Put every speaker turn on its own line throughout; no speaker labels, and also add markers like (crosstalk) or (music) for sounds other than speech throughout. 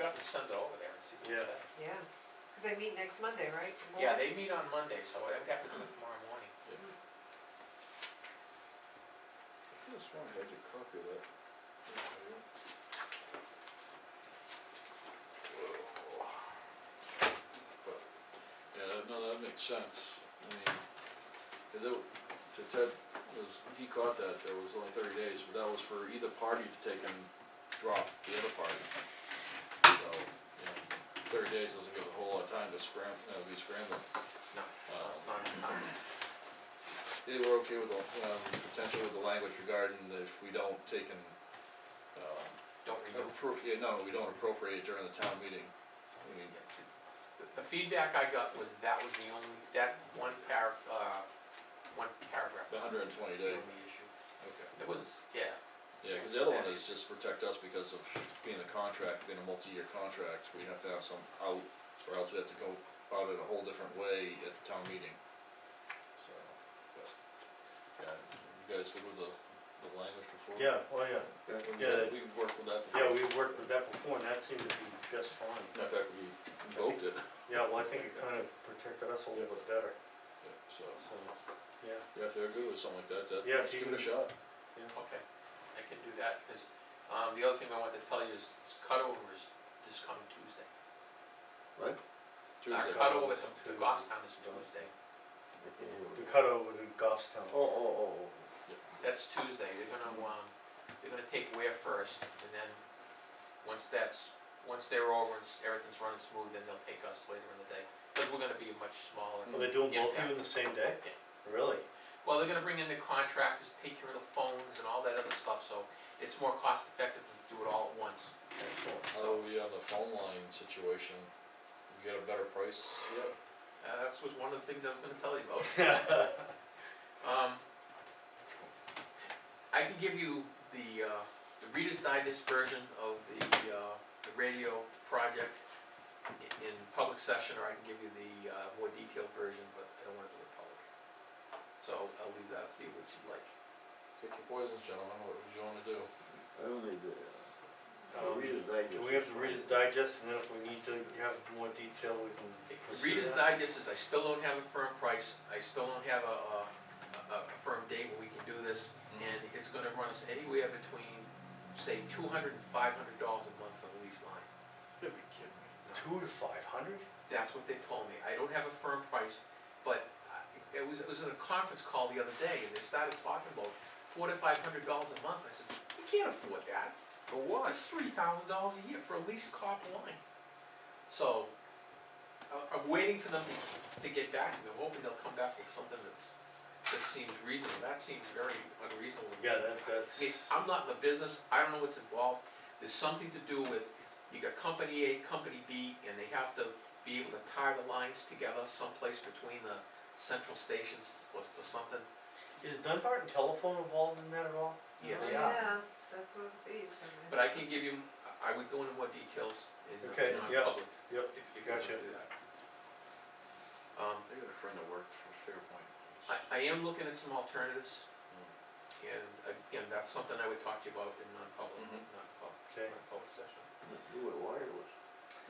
send it over there and see what they
Yeah.
say.
Yeah, cause they meet next Monday, right? The
Yeah,
board?
they meet on Monday, so I'd have to do it tomorrow morning.
I just wanted to get a copy of that. But, Yeah, that- no, that makes sense, I mean, 'cause it, to Ted, was, he caught that, there was only thirty days, but that was for either party to take and drop the other party. So, you know, thirty days doesn't give a whole lot of time to scram, uh, be scrambling.
No, no, it's not in time.
Yeah, we're okay with the, um, potential with the language regarding the- if we don't take and, um,
Don't renew.
appropriate, no, we don't appropriate during the town meeting. We need-
The- The feedback I got was that was the only, that one par, uh, one paragraph.
The
was
hundred and twenty
The
day,
only issue.
okay.
It was, yeah,
Yeah, cause the other one is just protect us because of being a contract, being a multi-year contract, we have to have some out, or else we have to go about it a whole different way at the town meeting. So, but, yeah, you guys good with the, the language before?
Yeah, oh yeah, yeah.
We've worked with that before.
yeah, we worked with that before and that seemed to be just fine.
In fact, we invoked it,
Yeah, well, I think it kind of protected us a little bit better,
Yeah, so,
so, yeah.
yeah, if they're good with something like that, that,
Yeah, if
let's
you
give it a
can-
shot.
okay, I can do that, cause, um, the other thing I wanted to tell you is cutover is this coming Tuesday. Our
Tuesday.
cutover at the, the Goffstown is Tuesday,
We cut over to Goffstown.
Oh, oh, oh, oh.
that's Tuesday, they're gonna, um, they're gonna take Ware first, and then, once that's, once they're over and s- everything's running smooth, then they'll take us later in the day, cause we're gonna be much smaller.
Are they doing Mm-hmm. both of you in the same day?
Yeah.
Really?
Well, they're gonna bring in the contractors, take care of the phones and all that other stuff, so it's more cost effective to do it all at once.
(laughs) Excellent.
So Oh, we on the phone line situation, we get a better price yet?
Uh, that was one of the things I was gonna tell you about. (laughs) Um, I can give you the, uh, the Reader's Digest version of the, uh, the radio project i- in public session, or I can give you the, uh, more detailed version, but I don't wanna do it public. So I'll leave that up to you, what you'd like.
Pick your poisons, gentlemen, what would you wanna do?
I don't need the,
Um,
uh, Reader's Digest.
Do we have to read his digest and then if we need to have more detail, we can
The
pursue
Reader's
that?
Digest is, I still don't have a firm price, I still don't have a, a, a a firm date when we can do this,
Mm-hmm.
and it's gonna run us anywhere between, say, two hundred and five hundred dollars a month for the lease line.
You're kidding me.
Two to five hundred?
That's what they told me. I don't have a firm price, but I- it was, it was in a conference call the other day, and they started talking about four to five hundred dollars a month. I said, we can't afford that.
For what?
That's three thousand dollars a year for a leased copper line. So, I, I'm waiting for them to, to get back to me. I'm hoping they'll come back with something that's, that seems reasonable. That seems very unreasonable. to me.
Yeah, that, that's.
I mean, I'm not in the business, I don't know what's involved, there's something to do with, you got company A, company B, and they have to be able to tie the lines together someplace between the central stations or, or something.
Is Dunbarton Telephone involved in that at all?
Yes,
Oh,
Yeah.
Yeah, that's where the bees come in.
but I can give you, I I would go into more details in the,
Okay,
in
yeah,
public,
yep,
if you want to
gotcha.
do that. Um,
I got a friend that worked for Fairpoint.
I, I am looking at some alternatives, and again, that's something I would talk to you about in non-public,
Mhm.
non-public,
Okay,
non-public session.
You were wireless.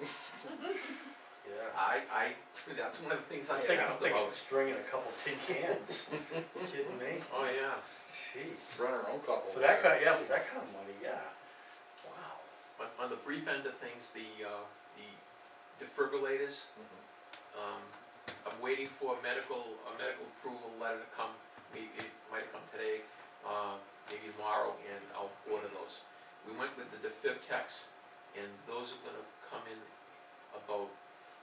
(laughs) yeah.
I, I, (laughs) that's one of the things I
I'm
asked
thinking,
about.
I'm thinking of stringing a couple tin (laughs) cans. Kidding me?
Oh, yeah,
Jeez.
Run our own couple.
For that kind of, yeah, for that kind of money, yeah. Wow.
on, on the brief end of things, the, uh, the defibrillators,
Mhm.
um, I'm waiting for a medical, a medical approval letter to come, maybe, it might come today, uh, maybe tomorrow, and I'll order those. We went with the defib techs, and those are gonna come in about,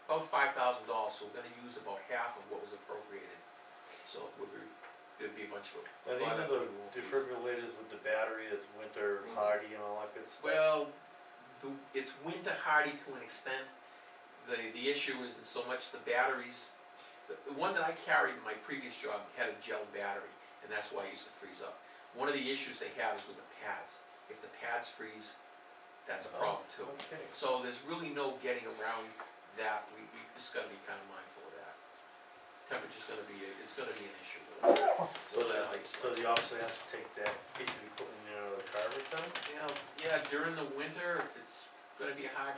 about five thousand dollars, so we're gonna use about half of what was appropriated. So it would be, there'd be a bunch of.
Now, these are the
different.
defibrillators with the battery that's winter
Mhm.
hardy and all that good stuff.
Well, the, it's winter hardy to an extent. The, the issue isn't so much the batteries. The, the one that I carried in my previous job had a gel battery, and that's why I used to freeze up. One of the issues they have is with the pads. If the pads freeze, that's a problem too.
Okay.
So there's really no getting around that. We, we just gotta be kinda mindful of that. Temperature's gonna be, a- it's gonna be an issue with it. So that I.
So the officer has to take that piece of equipment in and out of the car every time?
Yeah, yeah, during the winter, if it's gonna be hot